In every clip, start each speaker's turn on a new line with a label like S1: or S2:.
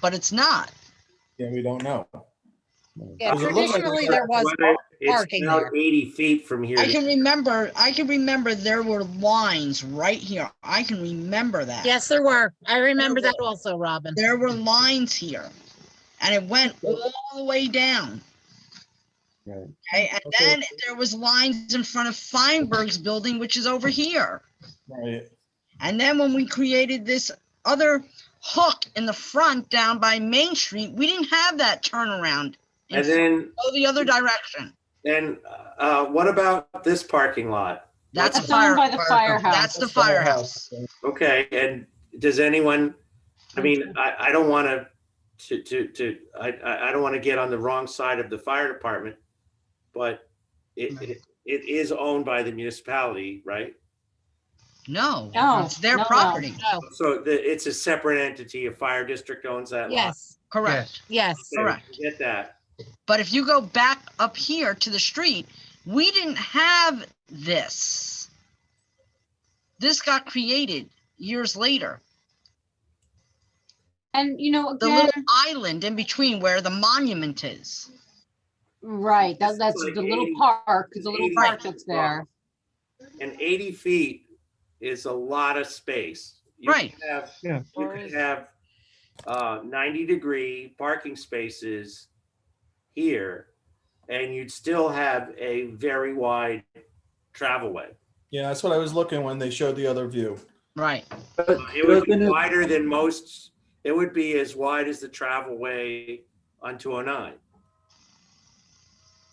S1: but it's not.
S2: Yeah, we don't know.
S3: Yeah,
S4: Because it looks like
S3: traditionally,
S4: it's
S3: there was
S4: athletic, It's
S3: parking
S4: now
S3: there.
S4: eighty feet from here.
S1: I can remember, I can remember there were lines right here. I can remember that.
S3: Yes, there were. I remember that also, Robin.
S1: There were lines here and it went all the way down.
S5: Right.
S1: Okay, and
S5: Okay.
S1: then there was lines in front of Feinberg's building, which is over here.
S2: Right.
S1: And then when we created this other hook in the front down by Main Street, we didn't have that turnaround.
S4: And
S1: It's
S4: then,
S1: Go the other direction.
S4: then, uh, what about this parking lot?
S1: That's a
S6: That's
S1: fire.
S6: owned by the firehouse.
S1: That's the firehouse.
S4: Okay, and does anyone, I mean, I, I don't want to, to, to, to, I, I, I don't want to get on the wrong side of the fire department, but it, it, it is owned by the municipality, right?
S1: No,
S6: No,
S1: it's their
S6: no, no.
S1: property.
S3: No,
S4: So the, it's a separate entity, a fire district owns that lot.
S3: Oh, yes,
S1: Correct.
S3: yes.
S4: Okay,
S1: correct.
S4: Get that.
S1: But if you go back up here to the street, we didn't have this. This got created years later.
S6: And you know,
S1: The
S6: again,
S1: little island in between where the monument is.
S6: right,
S4: This
S6: that,
S4: is
S6: that's
S4: like
S6: the little
S4: 80
S6: park, the little
S4: 80
S6: park
S4: feet
S6: that's
S4: long.
S6: there.
S4: And eighty feet is a lot of space. You could
S1: Right.
S4: Have
S5: Yeah.
S4: you could have uh, 90 degree parking spaces here and you'd still have a very wide travelway.
S2: Yeah, that's what I was looking when they showed the other view.
S1: Right.
S4: It would be wider than most, it would be as wide as the travelway on 209.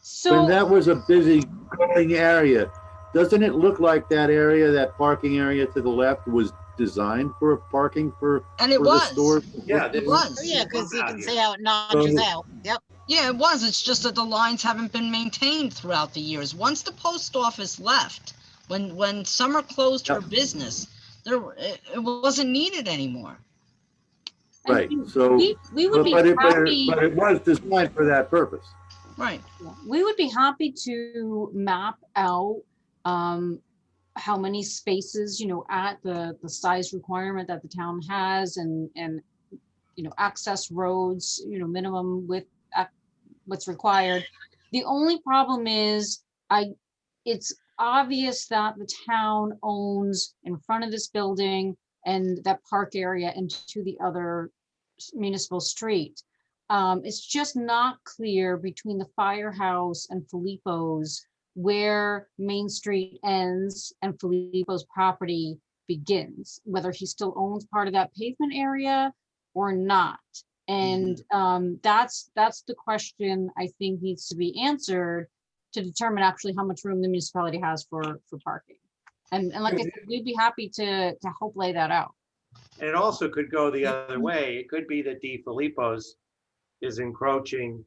S6: So.
S7: When that was a busy growing area, doesn't it look like that area, that parking area to the left was designed for parking for,
S1: And
S7: for
S1: it
S7: the
S1: was.
S7: store?
S4: Yeah, this
S1: It
S4: is-
S3: Oh,
S1: was.
S3: Yeah, because you can see how it notches out. Yep.
S1: Yeah, it was. It's just that the lines haven't been maintained throughout the years. Once the post office left, when when Summer closed her business, there were- it, it wasn't needed anymore.
S6: and
S7: Right,
S6: we-
S7: so-
S6: We, we would
S7: But
S6: be
S7: but it, but
S6: happy,
S7: it- but it was designed for that purpose.
S1: Right.
S6: we would be happy to map out, um, how many spaces, you know, at the, the size requirement that the town has and, and, you know, access roads, you know, minimum with, what's required. The only problem is I, it's obvious that the town owns in front of this building and that park area and to the other s- municipal street. Um, it's just not clear between the firehouse and Filippo's where Main Street ends and Filippo's property begins, whether he still owns part of that pavement area or not. And um, that's, that's the question I think needs to be answered to determine actually how much room the municipality has for, for parking. And, and like I said, we'd be happy to, to help lay that out.
S4: And it also could go the other way. It could be that Di Filippo's is encroaching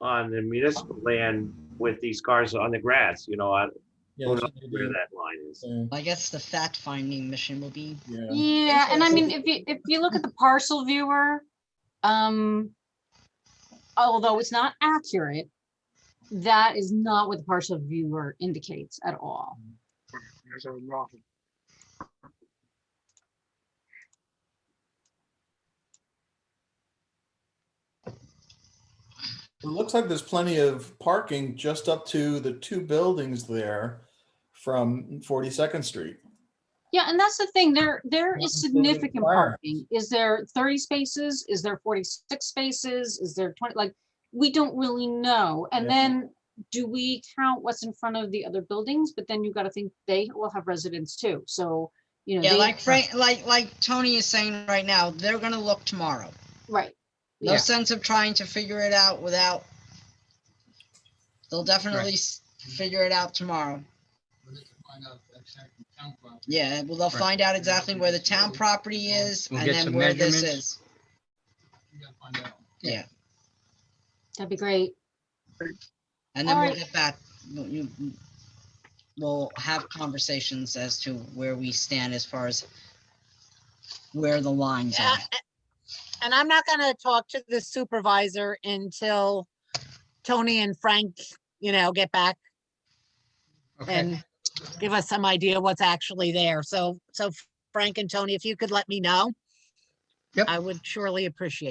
S4: on the municipal land with these cars on the grass, you know, I
S2: Yeah,
S4: don't
S2: that's
S4: know
S2: what they
S4: where
S2: do.
S4: that line is.
S2: Yeah,
S1: I guess the fact finding mission will be
S2: yeah.
S6: Yeah, and I mean, if you, if you look at the parcel viewer, um, although it's not accurate, that is not what the parcel viewer indicates at all.
S2: It looks like there's plenty of parking just up to the two buildings there from 42nd Street.
S6: Yeah, and that's the thing, there, there
S2: Not
S6: is
S2: including
S6: significant
S2: fire.
S6: parking. Is there thirty spaces? Is there forty-six spaces? Is there twenty, like, we don't really know. And
S2: Yeah.
S6: then do we count what's in front of the other buildings? But then you gotta think they will have residents too, so, you know.
S1: Yeah,
S6: they-
S1: like Frank, like, like Tony is saying right now, they're gonna look tomorrow.
S6: Right.
S1: No
S6: Yeah.
S1: sense of trying to figure it out without. They'll definitely s- figure it out tomorrow. Yeah, well, they'll
S8: Right.
S1: find out exactly where the town property is
S8: We'll
S1: and
S8: get
S1: then
S8: some
S1: where this
S8: measurements.
S1: is.
S8: Yeah.
S1: Yeah,
S6: That'd be great.
S1: and then we'll
S6: Alright.
S1: get back, we'll- you- we'll have conversations as to where we stand as far as where the lines
S3: Yeah,
S1: are.
S3: a- And I'm not gonna talk to the supervisor until Tony and Frank, you know, get back
S8: Okay,
S3: and give us some idea what's actually there. So, so Frank and Tony, if you could let me know.
S8: Yep.
S3: I would surely appreciate